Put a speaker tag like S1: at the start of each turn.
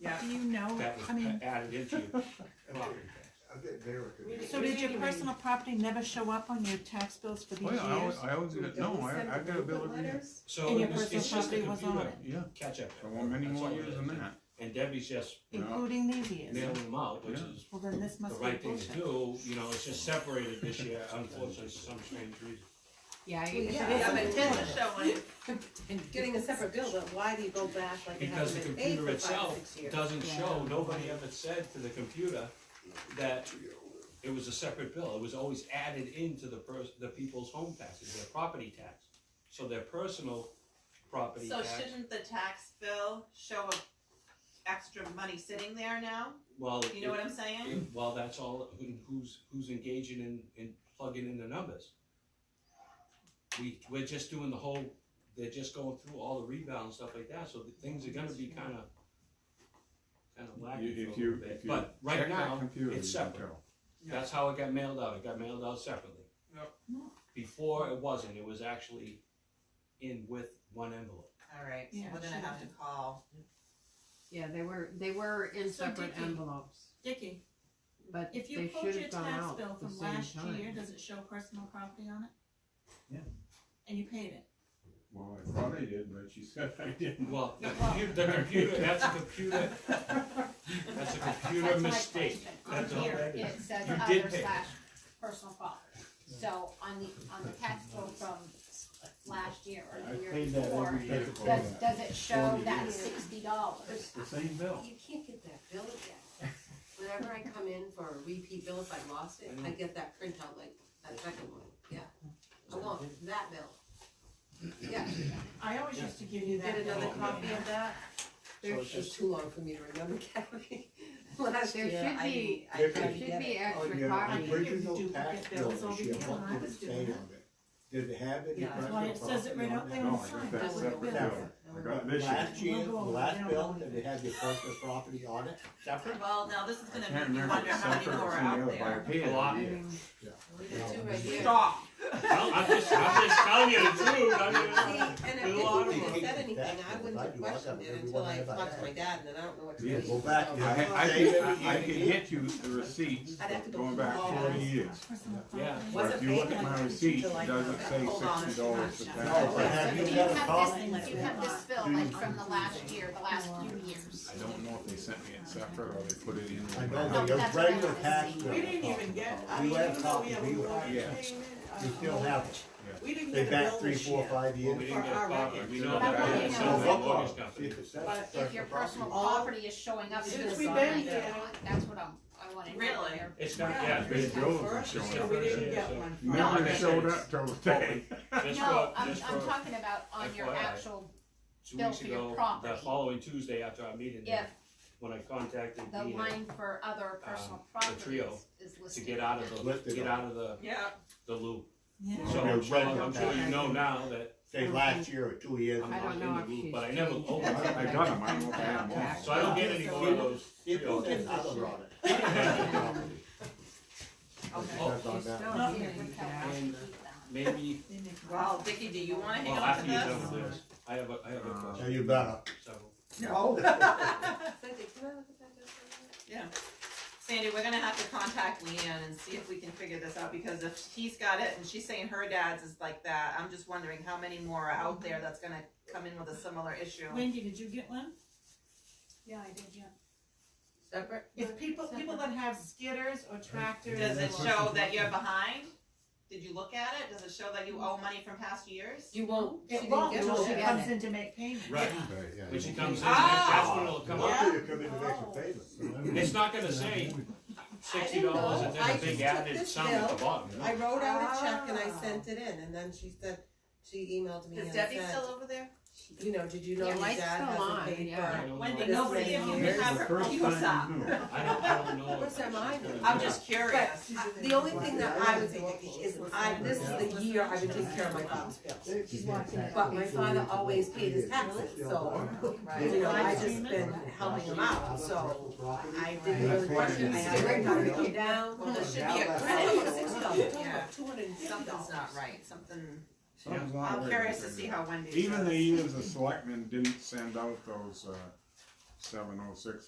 S1: Yeah.
S2: Do you know,
S1: That
S2: I mean,
S1: was added into your property tax.
S3: I think they were confused.
S2: so did your personal property never show up on your tax bills for these
S4: Oh, yeah, I always,
S2: years?
S4: I always get, no, I, I got a bill every year.
S1: So
S2: And your
S1: it was- it's
S2: personal
S1: just a
S2: property was on
S1: computer
S4: Yeah,
S1: catch up.
S4: for many
S1: That's
S4: more
S1: all it
S4: years
S1: is.
S4: than that.
S1: And Debbie's just
S2: Including these years?
S1: mailing them out, which
S4: Yeah.
S1: is
S2: Well, then this
S1: the
S2: must be
S1: right thing to
S2: bullshit.
S1: do, you know, it's just separated this year, unfortunately, for some strange reason.
S5: Yeah,
S6: Well,
S5: if
S6: yeah, but
S5: it
S6: it
S5: isn't,
S6: doesn't show on it.
S5: and
S6: getting a separate bill, but why do you go back like you
S1: Because the
S6: haven't been paid
S1: computer
S6: for five,
S1: itself
S6: six years?
S1: doesn't
S5: Yeah.
S1: show, nobody ever said to the computer that it was a separate bill, it was always added into the pers- the people's home taxes, their property tax. So their personal property
S6: So
S1: tax,
S6: shouldn't the tax bill show a extra money sitting there now?
S1: well.
S6: You know
S1: it-
S6: what I'm saying?
S1: Well, that's all, who- who's, who's engaging in, in plugging in the numbers? We, we're just doing the whole, they're just going through all the rebound and stuff like that, so the things are gonna be kinda, kinda lacking
S4: You-
S1: for a
S4: if you-
S1: little bit,
S4: if you
S1: but right
S4: Check that
S1: now,
S4: computer,
S1: it's
S4: you can
S1: separate.
S4: tell.
S1: That's how it got mailed out, it got mailed out separately.
S7: Yep.
S1: Before, it wasn't, it was actually in with one envelope.
S6: Alright,
S2: so Yeah, we're gonna she have to
S6: call.
S5: yeah, they were, they were in
S2: So
S5: separate
S2: Dickie-
S5: envelopes,
S2: Dickie,
S5: but they
S2: if you
S5: should
S2: pulled your
S5: have gone
S2: tax
S5: out
S2: bill
S5: the
S2: from
S5: same
S2: last year,
S5: time.
S2: does it show personal property on it?
S1: Yeah.
S2: And you paid it?
S4: Well, I thought I did, but she said I didn't.
S1: Well, the computer, the computer, that's a computer, that's a computer
S8: That's my
S1: mistake,
S8: question.
S1: that's all
S8: On here,
S1: that is.
S8: it says
S1: You did
S8: other
S1: pay.
S8: slash personal property. So on the, on the tax bill from last year or
S4: I
S8: the year
S4: paid that
S8: before,
S4: every year. for
S8: does,
S4: that.
S8: does it show
S4: Forty
S8: that
S4: years.
S8: sixty dollars?
S4: The same bill.
S9: You can't get that bill again. Whenever I come in for a repeat bill, if I lost it, I get that printout like that second one, yeah. I want that bill. Yeah,
S2: I always used to give you
S9: you
S2: that.
S9: get another
S2: bill.
S9: copy of that?
S1: So
S9: It's
S1: it's just-
S9: too long for me to remember, Kathy. Last
S5: There
S9: year,
S5: should
S9: I
S5: be-
S9: didn't- I
S3: There
S5: There
S9: couldn't
S5: should
S9: get
S4: Oh,
S5: be
S9: it.
S5: extra copies.
S2: I think if you
S3: original
S2: do
S3: tax
S2: get bills
S3: bill
S2: over
S3: this year,
S2: here,
S3: what
S2: I
S3: did
S2: was
S3: it
S2: doing
S3: say
S2: that.
S3: on it? Did it have any
S9: Yeah, that's
S3: personal
S2: why it says it
S3: property
S2: right
S3: on
S2: out
S3: it?
S2: there.
S4: No, I got that separate bill. I got this year.
S3: Last year, the
S2: We'll go over it.
S3: last
S2: I don't
S3: bill,
S2: know.
S3: did it have your personal property on it, separate?
S6: Well, now this is gonna
S4: I
S6: make
S4: can't
S6: me
S4: remember if
S6: wonder
S4: it's
S6: how many
S4: separate
S6: more are
S4: or something
S6: out
S4: else, but I
S6: there.
S4: paid it.
S1: A lot.
S4: yeah.
S9: We got two right here.
S6: Stop.
S1: Well, I'm just, I'm just telling you the truth, I
S9: See,
S1: mean,
S9: and
S1: There's a lot
S9: if
S1: of
S9: they
S3: them.
S9: wouldn't have said anything, I
S3: If
S9: wouldn't
S3: I
S9: have
S3: do, I got
S9: questioned it
S3: every
S9: until
S3: one
S9: I
S3: I have
S9: talked
S3: out
S9: to my dad, and then I don't know what to do.
S4: Yeah,
S3: go back,
S9: So-
S3: yeah.
S4: I, I
S3: Save
S4: could,
S3: everything
S4: I I
S3: you
S4: could
S3: need.
S4: get you the receipts
S9: I'd have to go
S4: going back
S9: through all
S4: forty
S9: that.
S4: years.
S2: Personal
S1: Yeah.
S2: property.
S4: But if you look at my
S2: Yeah.
S4: receipt, it doesn't say
S6: Hold on,
S4: sixty dollars for
S6: it's not-
S4: tax.
S3: No, but
S8: So
S3: have
S8: do
S3: you
S8: you
S3: got a
S8: have
S3: copy?
S8: this, do you have this bill like from the last year, the last few years?
S4: I don't know if they sent me it separate or they put it in.
S3: I
S4: the-
S3: know, but your
S8: that's what I
S3: regular
S8: wanna
S3: tax
S8: see.
S3: bill.
S10: We didn't even get, I
S3: You
S10: mean,
S3: have
S10: even though we
S3: copies,
S10: have
S3: we
S10: a
S3: would-
S10: water
S4: yeah.
S10: payment,
S2: um,
S3: You still
S10: uh,
S3: have it.
S10: we didn't
S3: They
S10: get a
S3: back
S10: bill
S3: three,
S10: this
S3: four,
S10: year.
S3: five
S1: well, we
S3: years.
S1: didn't get a
S10: For our
S1: copy, we
S10: records.
S1: know
S8: But I
S1: that,
S8: wanna
S1: it's
S8: know-
S1: sold to a mortgage
S3: See
S1: company.
S3: if it's that
S10: But
S8: If your
S3: personal
S8: personal
S3: property.
S8: property is showing up
S10: Since
S8: as
S10: we've
S8: a
S10: been
S8: sign,
S10: here.
S8: that's what I'm, I wanna know.
S6: Really?
S8: They're-
S1: It's not,
S10: Yeah.
S1: yeah,
S4: They
S1: it's,
S10: It's
S4: drove
S10: the
S4: them
S10: first
S4: showing
S10: year
S4: up
S10: we
S4: there.
S10: didn't
S1: Yeah,
S10: get
S1: so-
S10: one. from-
S4: Never
S1: No,
S4: showed
S1: it's-
S4: up till today.
S1: just
S8: No,
S1: for,
S8: I'm,
S1: just
S8: I'm
S1: for,
S8: talking about on your
S1: FYI.
S8: actual,
S1: two
S8: bill
S1: weeks
S8: for your
S1: ago, the
S8: property.
S1: following Tuesday after our meeting, there,
S8: If-
S1: when I contacted
S8: the
S1: Dina
S8: line for other personal properties
S1: trio
S8: is
S1: to
S8: listed.
S1: get out of
S3: Lift
S1: the,
S3: it
S1: get
S3: up.
S1: out of the,
S6: Yeah,
S1: the loop.
S2: Yeah.
S1: So,
S3: Your
S1: I'm sure-
S3: regular
S1: I'm sure you
S3: tax.
S1: know now that
S3: Say last year or two years.
S1: I'm
S5: I
S1: not
S5: don't
S1: in
S5: know
S1: the
S5: if
S1: loop,
S5: she's
S1: but I never
S5: changed.
S1: opened
S4: I I
S1: it,
S4: got them, I don't know if I had them all.
S1: so I don't get any more of those.
S3: If
S1: trios.
S3: it's that other on it.
S6: okay.
S1: Oh.
S3: That's on
S5: She's
S3: that.
S5: still
S2: Not
S5: getting
S2: yet.
S5: that.
S1: And maybe,
S2: They make-
S6: Well, Vicky, do you wanna hang
S1: well,
S6: on to
S1: after you're
S6: this?
S1: done with this, I have a, I have a
S4: Uh,
S3: Now
S1: question,
S3: you better.
S1: so.
S3: No.
S9: Sandy, can I look at that bill for a minute?
S6: Sandy, we're gonna have to contact Leanne and see if we can figure this out, because if he's got it and she's saying her dad's is like that, I'm just wondering how many more are out there that's gonna come in with a similar issue.
S2: Wendy, did you get one?
S8: Yeah, I did, yeah.
S9: Separate?
S2: If people, people that have skidders or tractors.
S6: Does it
S2: or-
S6: show that you're behind? Did you look at it? Does it show that you owe money from past years?
S9: You won't, she
S2: It
S9: didn't
S2: won't
S9: get it.
S2: until she
S9: Yeah.
S2: comes in to make payment.
S1: Right,
S3: Right, yeah.
S1: when she comes in,
S6: Ah!
S1: that's when it'll come up.
S3: Lucky to come in to make some payments.
S1: It's not gonna say sixty dollars and
S9: I
S1: then a
S9: didn't know. I
S1: big
S9: just
S1: added
S9: took
S1: sum
S9: this
S1: at the
S9: bill.
S1: bottom. no.
S9: I wrote out a check and I
S2: Ah.
S9: sent it in, and then she said, she emailed me and
S6: Is
S9: said,
S6: Debbie still over there?
S9: you know, did you know
S5: Yeah,
S9: your
S5: mine's
S9: dad
S5: still on,
S9: hasn't paid for?
S5: yeah.
S1: I don't
S6: Wendy,
S1: know.
S9: no.
S6: nobody of you
S9: Here's
S6: can have
S4: the
S6: her,
S4: first
S6: you
S4: time you knew.
S1: I don't, I don't know. if
S9: What's
S1: that's
S9: that mine?
S1: gonna be-
S6: I'm just curious.
S9: But the only thing that I would say, Vicky, is I, this is the year I've been taking care of my father's bills.
S3: She's watching it.
S9: But my father always paid his taxes, so, you know, I just been helping him out, so I didn't really question, I had to learn how to come down.
S6: Well, there should be a
S9: I told
S6: credit.
S9: you six dollars, talking about two hundred and fifty
S6: Something's
S9: dollars.
S6: not right, something,
S4: Something's not
S6: I'm
S4: right.
S6: curious to see how Wendy.
S4: Even
S6: does.
S4: the years the selectmen didn't send out those, uh, seven oh six